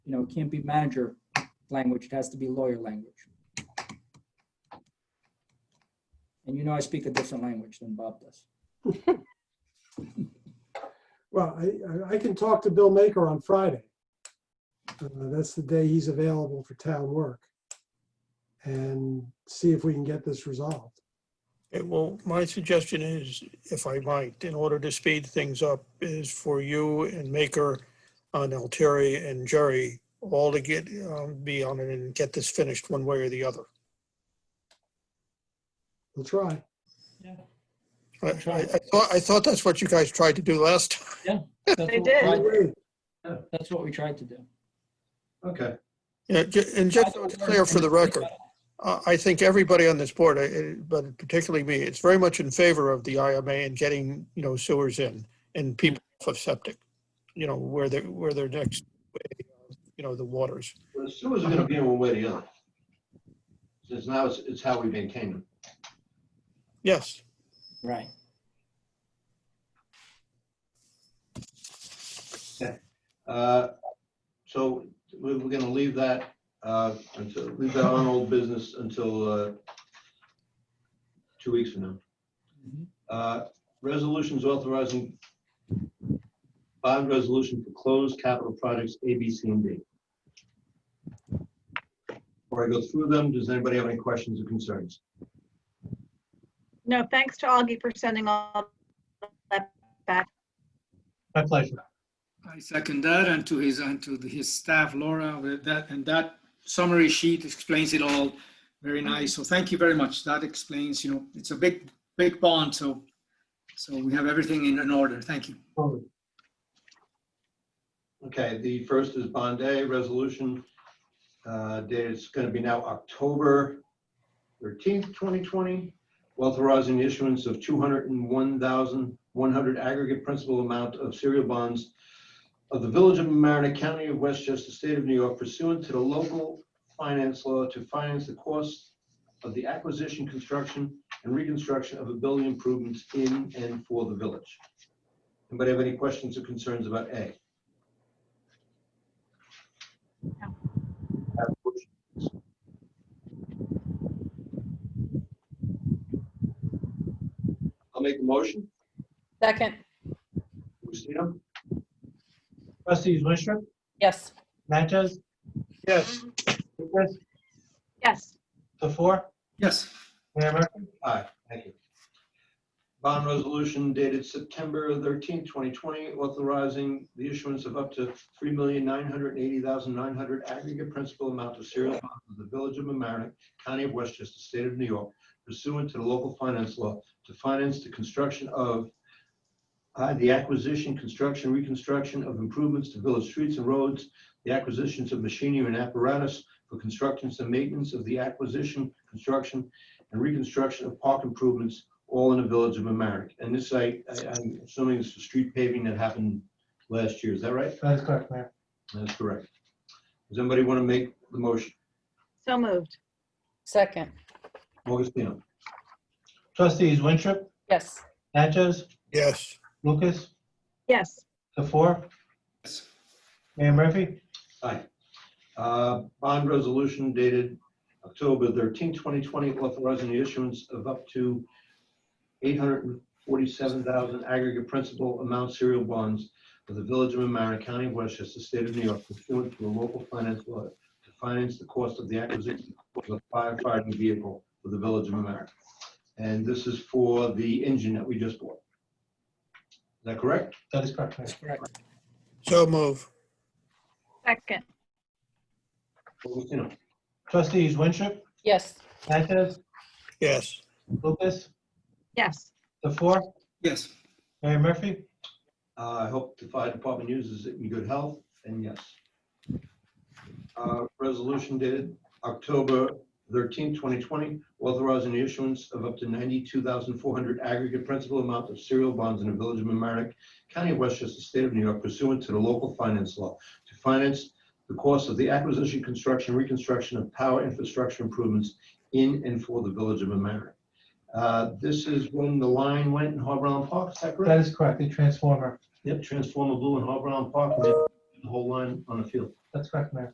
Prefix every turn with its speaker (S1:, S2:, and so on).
S1: you know, it can't be manager language, it has to be lawyer language. And you know I speak a different language than Bob does.
S2: Well, I- I, I can talk to Bill Maker on Friday. Uh, That's the day he's available for town work. And see if we can get this resolved.
S3: Okay, well, my suggestion is, if I might, in order to speed things up, is for you and Maker on Altieri and Jerry all to get, um, be on it and get this finished one way or the other.
S2: We'll try.
S3: I, I I thought, I thought that's what you guys tried to do last. time.
S1: That's what we
S4: did.
S1: tried-
S2: Anyway,
S1: That's what we tried to do.
S5: Okay,
S3: Yeah, ju- And just so it's clear for the record, I, I think everybody on this board, I- I- but particularly me, it's very much in favor of the IMA and getting, you know, sewers in and people off of septic, you know, where they're, where they're next, you know, the waters.
S5: well, the sewers are gonna be in one way or the other. Since now it's, it's how we maintain them.
S3: Yes,
S1: Right.
S5: Uh, So we're, we're gonna leave that, uh, until, leave that on old business until, uh, two weeks from now.
S1: Mhm.
S5: Uh, Resolutions authorizing bond resolution for closed capital projects A, B, C, and D. Before I go through them, does anybody have any questions or concerns?
S4: No, thanks to Augie for sending all that back.
S6: My pleasure.
S7: I second that and to his, and to his staff, Laura, with that, and that summary sheet explains it all very nice. So thank you very much. That explains, you know, it's a big, big bond, so, so we have everything in, in order. Thank you.
S6: Totally.
S5: Okay, the first is Bond A resolution. uh, dated it's going to be now October 13th, 2020, authorizing the issuance of 201,100 aggregate principal amount of serial bonds of the Village of Mamaroneck, County of Westchester, State of New York pursuant to the local finance law to finance the cost of the acquisition, construction, and reconstruction of a building improvements in and for the village. Anybody have any questions or concerns about A? have a motion. I'll make the motion.
S8: Second,
S5: Christina?
S6: Trustees Winstrup,
S8: yes.
S6: Natchez,
S3: yes,
S6: Lucas,
S4: Yes,
S6: the four,
S7: Yes.
S6: Mayor Murphy.
S5: Aye, thank you. Bond resolution dated September 13, 2020, authorizing the issuance of up to $3,980,900 aggregate principal amount of serial bonds of the Village of mamaroneck County of Westchester, State of New York, pursuant to the local finance law to finance the construction of uh, the acquisition, construction, reconstruction of improvements to village streets and roads, the acquisitions of machinery and apparatus for constructions and maintenance of the acquisition, construction, and reconstruction of park improvements, all in the village of Amerenik. And this, I, I- I'm assuming it's the street paving that happened last year, is that right?
S6: That is correct, Mayor.
S5: That's correct. Does anybody want to make the motion?
S4: so moved.
S8: Second,
S5: Augustino?
S6: Trustees Winstrup,
S8: yes.
S6: Natchez,
S3: yes.
S6: Lucas,
S4: Yes,
S6: the four,
S7: Yes.
S6: Mayor Murphy.
S5: Aye. Uh, Bond resolution dated October 13, 2020, authorizing the issuance of up to 847,000 aggregate principal amount serial bonds of the Village of Amerenik, County of Westchester, State of New York, pursuant to a local finance law to finance the cost of the acquisition of a firefighting vehicle for the Village of Amerenik. And this is for the engine that we just bought. Is that correct?
S6: That is correct, Mayor.
S1: Correct.
S3: So move,
S4: second.
S5: Augustino?
S6: Trustees Winstrup,
S8: Yes,
S6: Natchez,
S3: yes.
S6: Lucas,
S4: Yes,
S6: the four,
S7: Yes.
S6: Mayor Murphy.
S5: Uh, I hope the fire department uses it in good health, and yes. Uh, Resolution dated October 13, 2020, authorizing the issuance of up to 92,400 aggregate principal amount of serial bonds in the Village of Mamaroneck, County of Westchester, State of New York pursuant to the local finance law to finance the cost of the acquisition, construction, reconstruction of power infrastructure improvements in and for the Village of Mamaroneck. Uh, This is when the line went in Harbor Island Park, is that correct?
S6: That is correct, the transformer.
S5: Yep, transformer blue in Harbor Island Park. and then
S9: the whole line on the field.
S5: That's correct, Mayor.